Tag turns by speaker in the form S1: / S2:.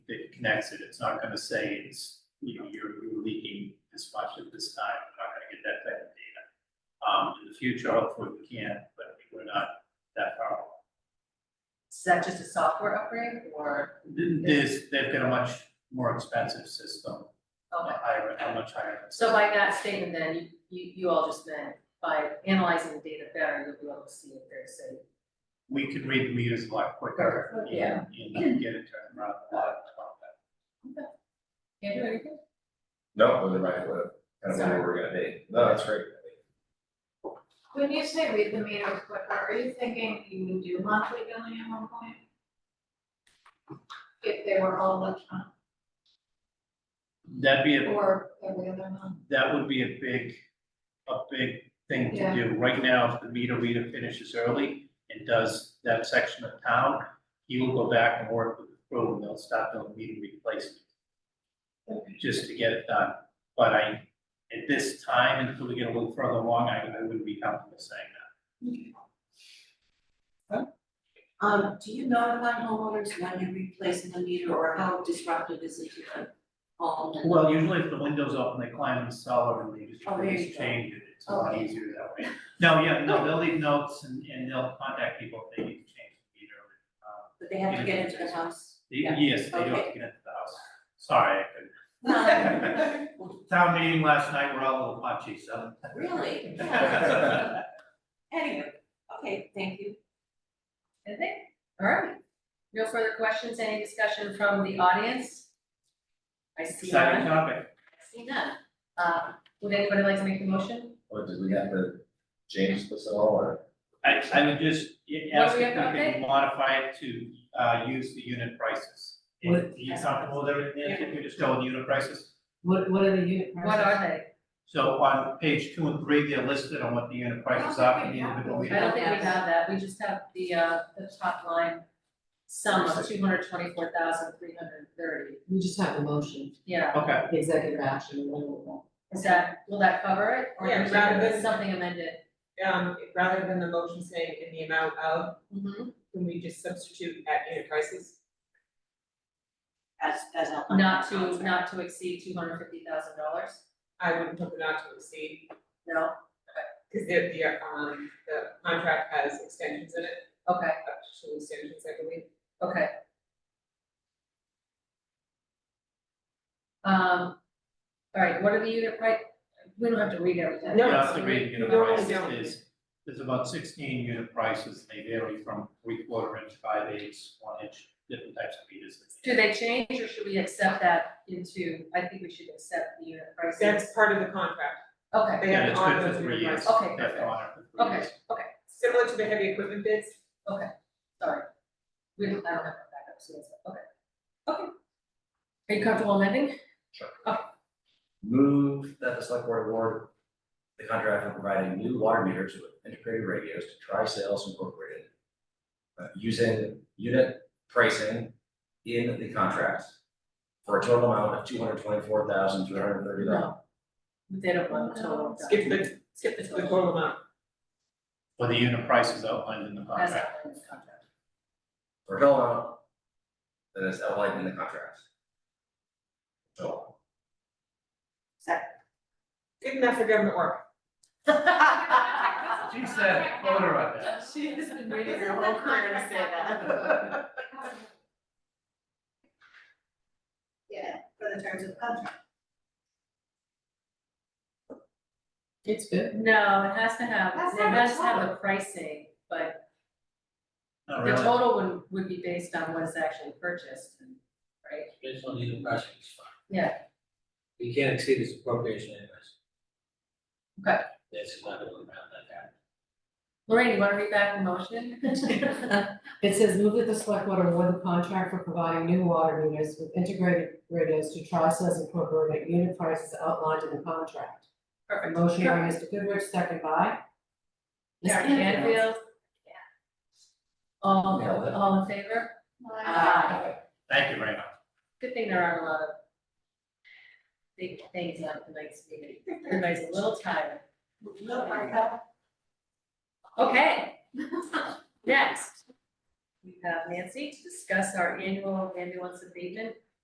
S1: connects it, it's not gonna say it's, you know, you're you're leaking this much at this time, we're not gonna get that type of data. Um, in the future, hopefully we can, but we're not that far. along.
S2: Is that just a software upgrade or,
S1: There's, they've got a much more expensive system, a
S2: okay.
S1: higher, a much higher.
S2: So by that statement then, you, you, you all just meant by analyzing the data better, you'll be able to see if there's a
S1: We could read the meters a lot quicker
S2: Yeah.
S1: and, and get it turned around a lot.
S2: Can't do anything?
S3: No, wasn't right, but kind of where we're gonna be. No, that's right.
S4: When you say read the meters quicker, are you thinking you would do monthly billing at one point? If they were all electronic
S1: That'd be a
S4: or every other month?
S1: that would be a big, a big thing to
S4: Yeah.
S1: do. Right now, if the meter reader finishes early and does that section of town, he will go back and work with the crew and they'll start doing meter replacement. Just to get it done. But I, at this time, until we get a little further along, I, I wouldn't be comfortable saying that.
S5: Um, do you notify homeowners when you're replacing the meter or how disruptive is it to the home? And-
S1: Well, usually if the window's open, they climb in the cellar and they just,
S5: Oh, there
S1: they just
S5: you go.
S1: change it. It's a lot
S5: Okay.
S1: easier that way. No, yeah, no, they'll leave notes and, and they'll contact people if they need to change the meter. Um,
S5: But they have to get into the house?
S1: Y- Yes, they do have to get into the house. Sorry. I couldn't.
S5: No,
S1: Town meeting last night, we're all a little punchy, so.
S5: really?
S1: Yeah.
S5: Anyway, okay, thank you.
S2: Anything? All right. No further questions, any discussion from the audience? I see
S1: Exciting
S2: none. I
S1: topic.
S2: see none. Uh, would anybody like to make a motion?
S3: Or did we have to change this at all or?
S1: I, I would just y-
S2: What
S1: ask
S2: were
S1: if
S2: you
S1: we
S2: gonna
S1: could modify it to, uh, use the unit prices.
S6: What-
S1: If you're comfortable with everything, if you just go with unit prices.
S6: What, what are the unit prices?
S2: What are they?
S1: So on page two and three, they're listed on what the unit prices are for the individual
S2: I
S1: meter.
S2: don't think we have that, we just have the, uh, the top line sum of two hundred twenty-four thousand three hundred thirty.
S6: We just have a motion,
S2: Yeah,
S1: Okay,
S6: executive action, and then we'll.
S2: is that, will that cover it? Or
S7: Yeah,
S2: is
S7: rather
S2: there
S7: than-
S2: something amended?
S7: um, rather than the motion saying in the amount of, can we just substitute at unit prices?
S5: As, as a.
S2: Not to, not to exceed two hundred fifty thousand dollars?
S7: I wouldn't put the not to exceed,
S2: No?
S7: because the, the, um, the contract has extensions in it,
S2: Okay,
S7: up to two extensions, I believe.
S2: okay. Um, all right, what are the unit price, we don't have to read everything.
S1: you
S7: No,
S1: have to read unit
S7: normally
S1: prices.
S7: don't.
S1: There's, there's about sixteen unit prices. They vary from three quarter inch, five eighths, one inch, different types of meters.
S2: Do they change or should we accept that into, I think we should accept the unit prices.
S7: That's part of the contract,
S2: Okay,
S7: they
S1: Yeah,
S7: have
S1: it's
S7: to honor
S1: good
S7: those
S1: for three
S7: unit
S1: years.
S7: prices.
S2: Okay,
S1: They have to
S2: perfect.
S1: honor it for three
S2: okay,
S1: years.
S2: okay,
S7: Similar to the heavy equipment bids,
S2: sorry. We don't, I don't have that backup, so that's, okay. Okay. Are you comfortable amending?
S3: Move that the select board award the contract for providing new water meters with integrated radios to Tri Sales Incorporated. uh, using unit pricing in the contract for a total amount of two hundred twenty-four thousand, three hundred thirty dollars.
S2: They don't want the total. done.
S7: skip the,
S2: Skip the
S7: the
S2: total.
S7: total amount,
S1: For the unit prices outlined in the
S2: As
S1: contract.
S2: outlined in the contract.
S3: For a total amount that is outlined in the contract. So.
S7: good enough for government work.
S1: She said, "Vote her on that."
S2: She has been
S4: waiting her whole career to say that. Yeah, for the terms of contract.
S6: It's good.
S2: No, it has to have,
S4: That's
S2: it
S4: not
S2: has to
S4: the
S2: have the pricing, but
S1: Not Oh,
S2: the
S1: really.
S2: total would, would be based on what is actually purchased, and- right?
S8: Based on the impression, it's fine.
S2: Yeah.
S8: You can't exceed his appropriation anyways.
S2: Okay.
S8: That's not gonna amount that happen.
S2: Lorraine, you wanna read back the motion?
S6: It says move that the select board award the contract for providing new water meters with integrated radios to Tri-Sas Incorporated at unit prices outlined in the contract. A
S2: Perfect.
S6: motion by Mr. Goodrich, second by. Ms.
S2: Mr. Canfield? All, all in favor? Aye.
S1: Thank you very much.
S2: Good thing there aren't a lot of big things on tonight's meeting. Everybody's a little tired.
S4: Little part of-
S2: Okay. Next, we have Nancy to discuss our annual ambulance abatement